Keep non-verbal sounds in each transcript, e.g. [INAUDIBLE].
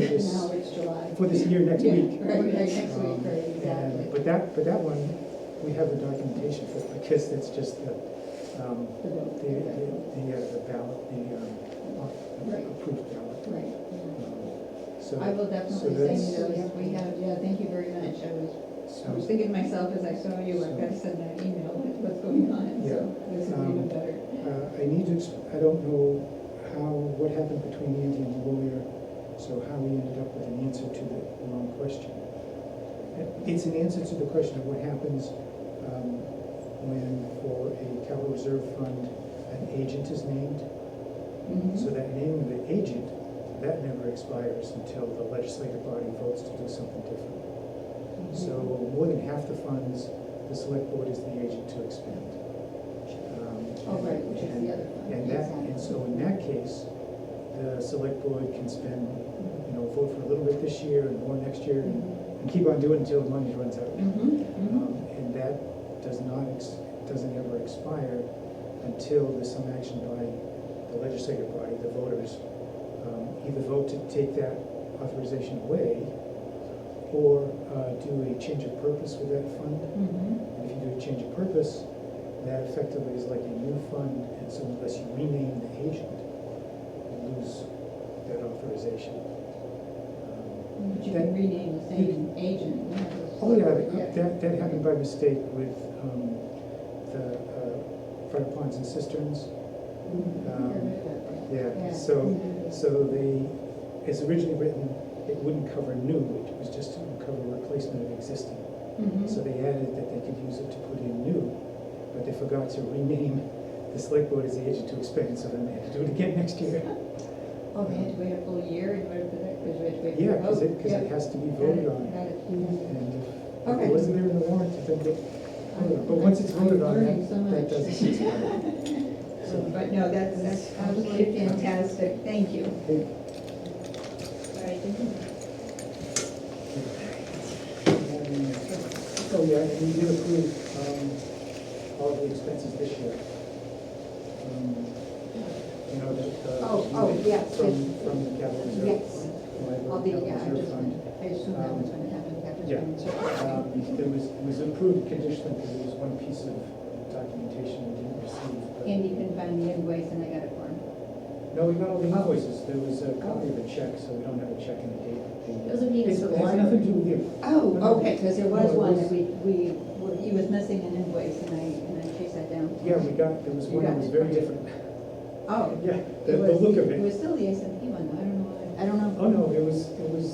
this, Now it's July. for this year next Yeah, week. Right, right, next Um, week, right, and- exactly. But that, but that one, we have the documentation for, because it's just the, um, The the, vote, the, the uh, the ballot, the, um, Right. uh, approved ballot. Right, yeah. Um, So. I will so definitely send you that's- those, we have, yeah, thank you very much, I was, I was So, thinking to myself as I saw you, I've got to send that email, with what's going on, so this is Um, even better. uh, I need to, ex- I don't know how, what happened between Andy and the lawyer, so how we ended up with an answer to the wrong question. It- It's an answer to the question of what happens um, when for a capital reserve fund, an agent is named. Mhm. So that name of the agent, that never expires until the legislative body votes to do something different. Mm-hmm. So more than half the funds, the select board is the agent to expend. Um, Oh, right, which is the other one. And that, and so in that case, the select board can spend, you know, vote for a little bit this year and more next year and and keep on doing until the money runs out. Mhm, mhm. Um, And that does not, ex- doesn't ever expire until there's some action by the legislative body, the voters, um, either vote to take that authorization away or uh, do a change of purpose with that fund. Mhm. And if you do a change of purpose, that effectively is like a new fund, and so unless you rename the agent, you lose that authorization. Um, But you That- can rename the same agent. yeah, it's- Oh, yeah, that, that happened by mistake with um, the uh, front ponds and cisterns. Mhm. um, Yeah, Yeah. Mm-hmm. so, so the, it's originally written, it wouldn't cover new, it was just to cover replacement of existing. Mhm. So they added that they could use it to put in new, but they forgot to rename the select board as the agent to expand, so then they had to do it again next year. Oh, we had to wait a full year in order for that, because we had to wait for Yeah, the because vote. it, because it has to be voted on. Got it. And if- if it Okay. wasn't there in the warrant, I think it, I don't know, but once it's voted on, that, that doesn't [LAUGHS] expire. So, But no, that's, that's absolutely fantastic, thank you. Hey, um, Oh, yeah, and we did approve, um, all the expenses this year. Um, You know, the, the. Oh, oh, yes, From, yes. from the capital reserve. Yes. Liability I'll be, capital yeah, I reserve just, fund. I assume that was gonna happen, that was Um, Yeah. gonna Um, It was, it was approved conditionally, because there was one piece of documentation we didn't receive. but- Andy couldn't find the invoice and I got it for him. No, we got all the invoices, there was a copy of a check, so we don't have a check in the date. Doesn't mean it's It a has warrant. nothing to do with you. Oh, okay, because there No, was it one was- that we, we, were- he was missing an invoice and I, and I chased that down. Yeah, we got, there was You one that got was it. very different. Oh. Yeah, it the, the was- look of It it. was still the SMP one, though, I don't know, why- I don't know. Oh, no, it was, it was,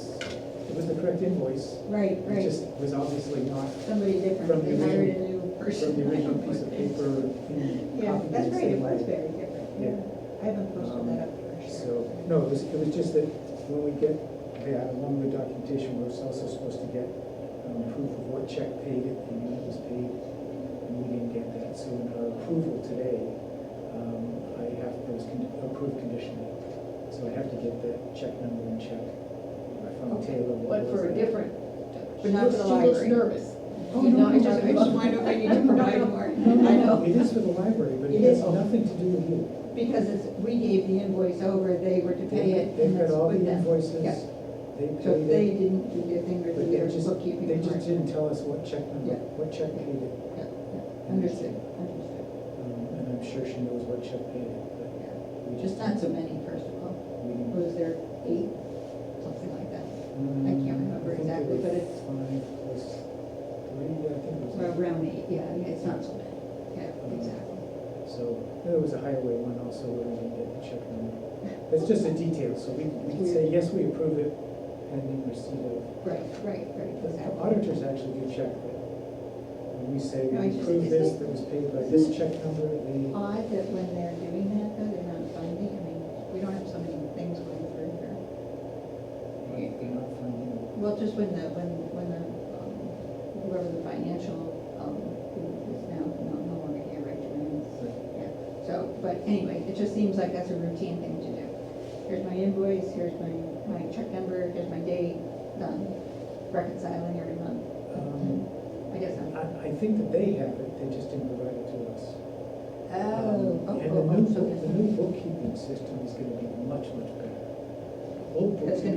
it was the correct invoice. Right, It right, just was obviously not somebody from different, the they hired a original- new person. from the original piece [LAUGHS] of paper. in Yeah, copy the that's right, it same was way. very different. Yeah. Um, I haven't posted that up for sure. So, no, it was, it was just that when we get that, along with documentation, we're also supposed to get um, proof of what check paid it and when it was paid, and we didn't get that. So in our approval today, um, I have, it was con- approved conditionally, so I have to get the check number and check from Okay, Taylor. what But was for a it. different, But she not for looks, the she looks library. nervous. Oh, You no, know, no, I just, no, I [LAUGHS] just no. wanna know if I need No, to no, provide no. more. No, no, I know. It is for the library, but it It has is. nothing to do with you. Because it's, we gave the invoice over, they were to pay it. They've and got that's all the with them. invoices, Yeah. they paid it. So if they didn't do their thing, or But do they their just- bookkeeping. They just part. didn't tell us what check number, Yeah. what check paid it. Yeah, yeah. Understood, understood. Um, And I'm sure she knows what check paid it, but Yeah. we just. Just not so many, first of all. we didn't- Was there eight, something like that? I can't remember Um, I think exactly, it was but it's- Five plus three, I think it was. Well, Around eight, yeah, yeah, it's not so bad. Yeah, exactly. So there was a highway one also where we didn't get the check number. That's just a detail, so we, we can say, yes, we approve it pending receipt of. Right, right, right, The exactly. auditors actually do check that. When we say No, I we just- approve is this, it- Oh. that was paid by this check number, they. Odd that when they're doing that, though, they're not finding, I mean, we don't have so many things going through here. They're not finding. Well, just when the, when, when the, um, whoever the financial, um, who is now, no, no longer here, right, Joanne? Yeah, so, but anyway, it just seems like that's a routine thing to do. Here's my invoice, here's my, my check number, here's my date, done, reconciling every month. Um, I guess I'm. I, I think that they have it, they just didn't provide it to us. Um, Oh, And oh, the new, oh, so book- the new bookkeeping system is gonna be much, much better. Old That's gonna bookkeeping